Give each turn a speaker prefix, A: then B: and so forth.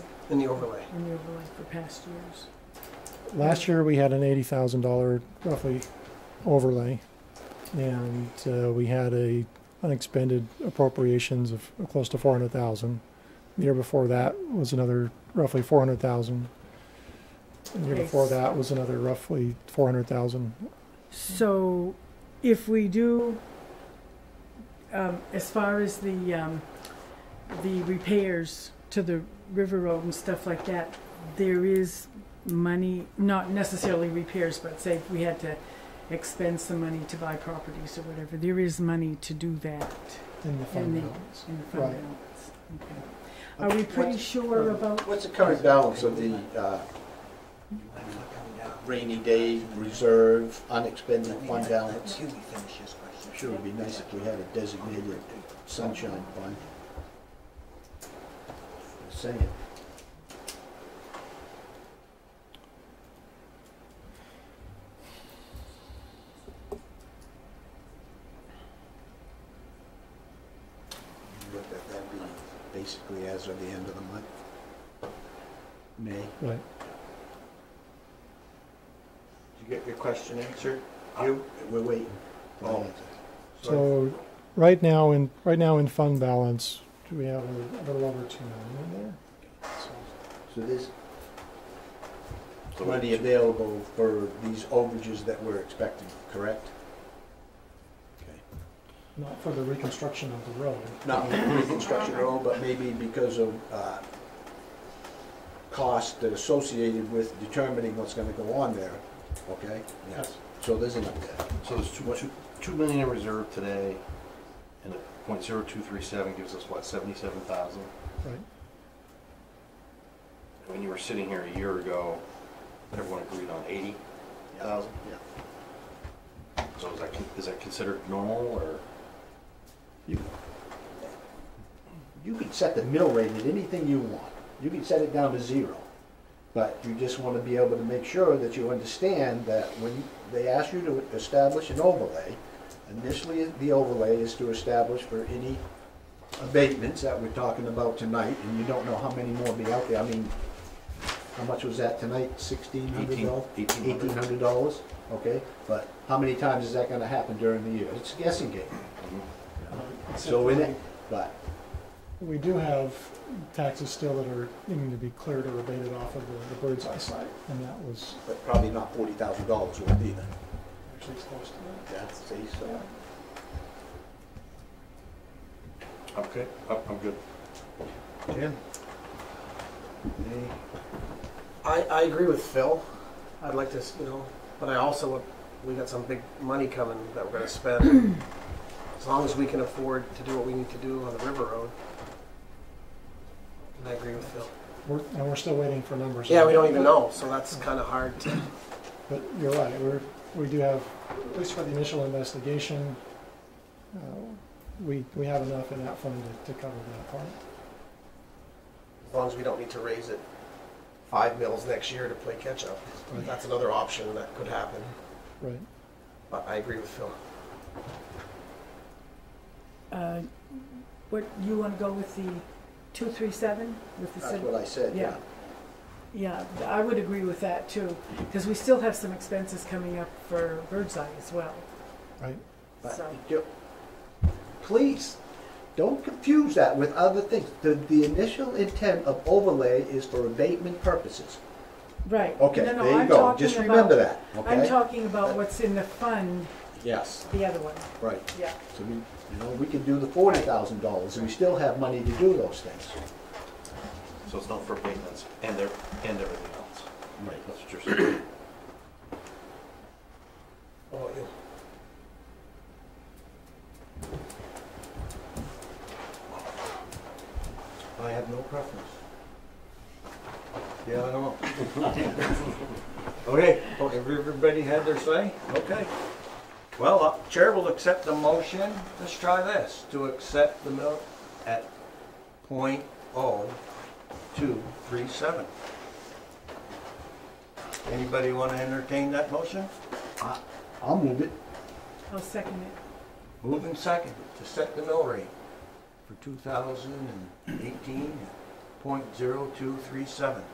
A: in the overlay.
B: in the overlay for past years.
C: Last year, we had an eighty thousand dollar roughly overlay, and uh, we had a unexpended appropriations of close to four hundred thousand. The year before that was another roughly four hundred thousand. The year before
B: Nice.
C: that was another roughly four hundred thousand.
B: So if we do, um, as far as the, um, the repairs to the river road and stuff like that, there is money, not necessarily repairs, but say if we had to expend some money to buy properties or whatever, there is money to do that
C: In the fund
B: the-
C: balance.
B: in the fund
C: Right.
B: balance. Okay. Are we pretty sure about,
A: What's the current balance of the uh, rainy day reserve, unexpended fund balance? Sure would be nice if we had a designated sunshine fund. Just Saying, What that, that'd be basically as of the end of the month. May.
C: Right.
A: Did you get your question answered? You? We're waiting. Oh.
C: So, right now in, right now in fund balance, do we have a little over two million in there?
A: So there's money available for these overages that we're expecting, correct? Okay.
C: Not for the reconstruction of the road.
A: Not reconstruction at all, but maybe because of uh, cost associated with determining what's gonna go on there, okay? Yes. So there's enough there.
D: So there's two, two, two million in reserve today, and a point zero two three seven gives us what, seventy-seven thousand?
C: Right.
D: When you were sitting here a year ago, everyone agreed on eighty thousand?
A: Yeah.
D: So is that, con- is that considered normal, or?
A: You can set the mill rate at anything you want. You can set it down to zero. But you just want to be able to make sure that you understand that when they ask you to establish an overlay, initially the overlay is to establish for any abatements that we're talking about tonight, and you don't know how many more be out there. I mean, how much was that tonight? Sixteen hundred dollars?
D: Eighteen- eighteen hundred.
A: dollars, okay? But how many times is that gonna happen during the year? It's a guessing game. So in it, but
C: We do have taxes still that are needing to be cleared or abated off of the, the bird's eye site, and that was
A: but probably not forty thousand dollars worth either.
C: actually close to that.
A: Yeah, see, so.
D: Okay, I'm, I'm good.
A: Jim?
E: I, I agree with Phil. I'd like to, s- you know, but I also, we got some big money coming that we're gonna spend. As long as we can afford to do what we need to do on the river road. And I agree with Phil.
C: We're, and we're still waiting for numbers.
E: Yeah, we don't even know, so that's kinda hard to,
C: But you're right, we're, we do have, at least for the initial investigation, uh, we, we have enough in that fund to, to cover that part.
E: as long as we don't need to raise it five mils next year to play catch up. That's another option that could happen,
C: Right.
E: but I agree with Phil.
B: uh, what, you wanna go with the two, three, seven, with the
A: That's
B: city?
A: what I said, yeah.
B: Yeah. Yeah, th- I would agree with that too, because we still have some expenses coming up for Birdseye as well.
C: Right.
A: But
B: So-
A: you- Please, don't confuse that with other things. The, the initial intent of overlay is for abatement purposes.
B: Right.
A: Okay,
B: No, no,
A: there you
B: I'm
A: go.
B: talking
A: Just
B: about-
A: remember that,
B: I'm
A: okay?
B: talking about what's in the fund,
A: Yes.
B: the other one,
A: Right.
B: yeah.
A: So we, you know, we can do the forty thousand dollars and we still have money to do those things.
D: So it's not for maintenance and there, and everything else.
A: Right.
D: That's what you're saying.
E: How about you?
A: I have no preference. Yeah, I know.
F: Okay, well, have everybody had their say? Okay. Well, uh, Chair will accept the motion, let's try this, to accept the mill at point oh two three seven. Anybody want to entertain that motion?
A: I'll move it.
B: I'll second it.
F: Moving second, to set the mill rate for two thousand and eighteen point zero two three seven.